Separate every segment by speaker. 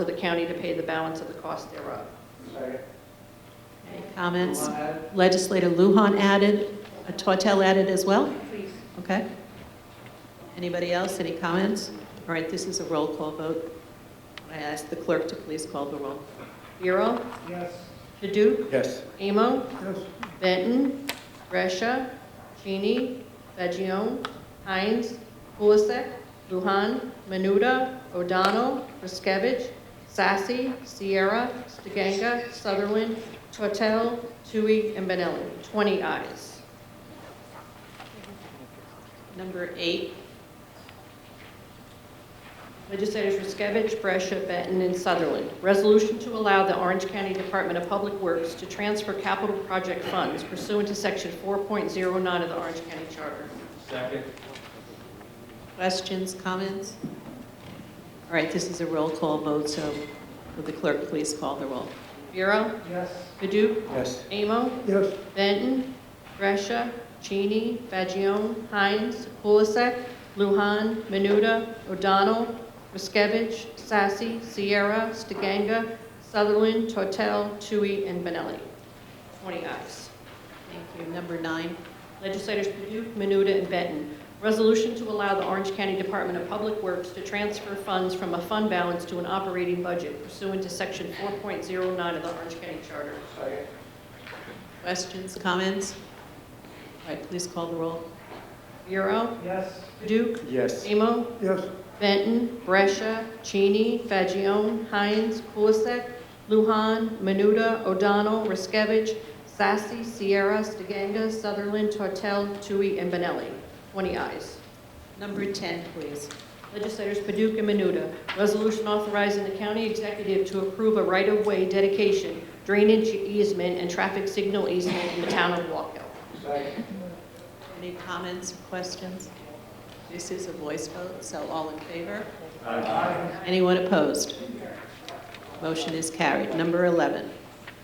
Speaker 1: for the county to pay the balance of the cost thereof.
Speaker 2: Second.
Speaker 3: Any comments?
Speaker 2: One added.
Speaker 3: Legislator Luhon added, uh, Tortel added as well?
Speaker 1: Please.
Speaker 3: Okay. Anybody else, any comments? All right, this is a roll call vote. I ask the clerk to please call the roll.
Speaker 1: Bureau,
Speaker 2: Yes.
Speaker 1: Padu,
Speaker 4: Yes.
Speaker 1: Amo,
Speaker 2: Yes.
Speaker 1: Benton, Resha, Cheney, Fagion, Hines, Kulisek, Luhan, Menuda, O'Donnell, Riskevich, Sassy, Sierra, Stiganga, Sutherland, Tortel, Tui, and Benelli. 20 ayes.
Speaker 3: Number eight,
Speaker 1: Legislators Riskevich, Brescia, Benton, and Sutherland. Resolution to allow the Orange County Department of Public Works to transfer capital project funds pursuant to Section 4.09 of the Orange County Charter.
Speaker 2: Second.
Speaker 3: questions, comments? All right, this is a roll call vote, so would the clerk please call the roll?
Speaker 1: Bureau?
Speaker 2: Yes.
Speaker 1: Padu?
Speaker 4: Yes.
Speaker 1: Amo?
Speaker 2: Yes.
Speaker 1: Benton, Gresha, Cheney, Fagion, Hines, Kulisek, Luhan, Menuda, O'Donnell, Riskevich, Sassy, Sierra, Stiganga, Sutherland, Tortel, Tui, and Benelli. 20 ayes.
Speaker 3: Thank you. Number nine,
Speaker 1: Legislators Paduk, Menuda, and Benton. Resolution to allow the Orange County Department of Public Works to transfer funds from a fund balance to an operating budget pursuant to Section 4.09 of the Orange County Charter.
Speaker 2: Second.
Speaker 3: questions, comments? All right, please call the roll.
Speaker 1: Bureau,
Speaker 2: Yes.
Speaker 1: Paduk,
Speaker 4: Yes.
Speaker 1: Amo,
Speaker 2: Yes.
Speaker 1: Benton, Brescia, Cheney, Fagion, Hines, Kulisek, Luhan, Menuda, O'Donnell, Riskevich, Sassy, Sierra, Stiganga, Sutherland, Tortel, Tui, and Benelli. 20 ayes.
Speaker 3: Number 10, please.
Speaker 1: Legislators Paduk and Menuda, resolution authorizing the county executive to approve a right-of-way dedication, drainage easement, and traffic signal easement in the town of Walk Hill.
Speaker 2: Second.
Speaker 3: Any comments, questions? This is a voice vote, so all in favor? Anyone opposed? Motion is carried. Number 11,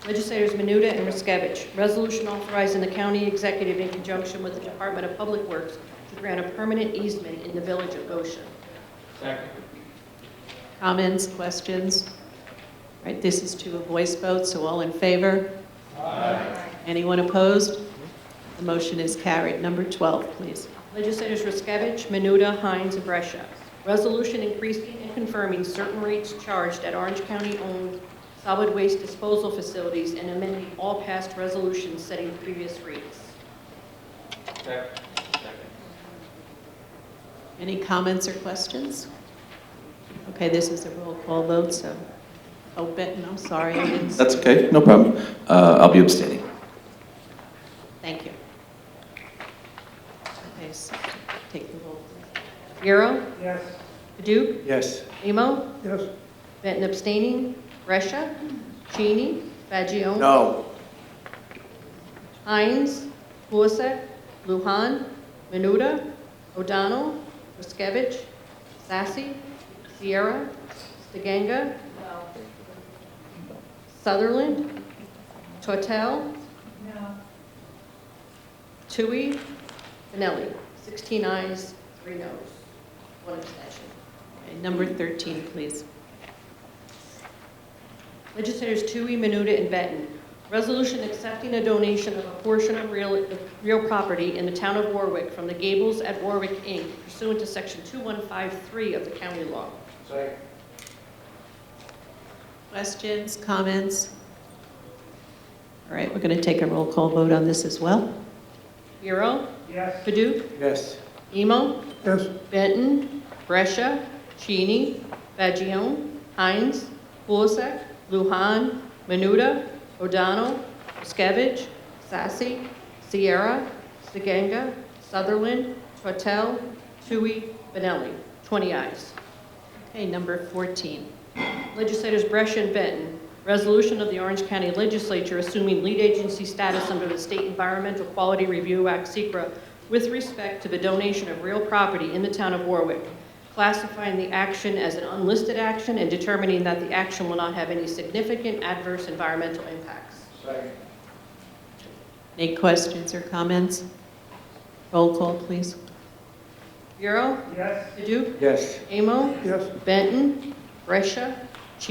Speaker 1: Legislators Menuda and Riskevich, resolution authorizing the county executive in conjunction with the Department of Public Works to grant a permanent easement in the village of Goshen.
Speaker 2: Second.
Speaker 3: comments, questions? All right, this is to a voice vote, so all in favor? Anyone opposed? The motion is carried. Number 12, please.
Speaker 1: Legislators Riskevich, Menuda, Hines, and Brescia, resolution increasing and confirming certain rates charged at Orange County-owned solid waste disposal facilities and amending all past resolutions setting previous rates.
Speaker 2: Second.
Speaker 3: Any comments or questions? Okay, this is a roll call vote, so, oh, Benton, I'm sorry, I didn't
Speaker 5: That's okay, no problem. Uh, I'll be abstaining.
Speaker 3: Thank you. Okay, so take the roll. please.
Speaker 1: Bureau,
Speaker 2: Yes.
Speaker 1: Paduk,
Speaker 4: Yes.
Speaker 1: Amo,
Speaker 2: Yes.
Speaker 1: Benton abstaining, Brescia, Cheney, Fagion.
Speaker 4: No.
Speaker 1: Hines, Kulisek, Luhan, Menuda, O'Donnell, Riskevich, Sassy, Sierra, Stiganga, Sutherland, Tortel, Tui, Benelli. 16 ayes, 3 noes, 1 abstention.
Speaker 3: Okay, Number 13, please.
Speaker 1: Legislators Tui, Menuda, and Benton. Resolution accepting a donation of a portion of real, of real property in the town of Warwick from the Gables at Warwick, Inc. pursuant to section 2153 of the county law.
Speaker 2: Second.
Speaker 3: Questions, comments? All right, we're going to take a roll call vote on this as well.
Speaker 1: Bureau,
Speaker 2: Yes.
Speaker 1: Paduk,
Speaker 4: Yes.
Speaker 1: Emo,
Speaker 2: Yes.
Speaker 1: Benton, Brescia, Cheney, Fagion, Hines, Kulisek, Luhan, Menuda, O'Donnell, Skevich, Sassy, Sierra, Stiganga, Sutherland, Tortel, Tui, Benelli. 20 ayes.
Speaker 3: Okay, number 14.
Speaker 1: Legislators Brescia and Benton, resolution of the Orange County Legislature assuming lead agency status under the State Environmental Quality Review Act, SECRA, with respect to the donation of real property in the town of Warwick, classifying the action as an unlisted action and determining that the action will not have any significant adverse environmental impacts.
Speaker 2: Second.
Speaker 3: Any questions or comments? Roll call, please.
Speaker 1: Bureau,
Speaker 2: Yes.
Speaker 1: Paduk,
Speaker 4: Yes.
Speaker 1: Amo,
Speaker 2: Yes.
Speaker 1: Benton, Brescia,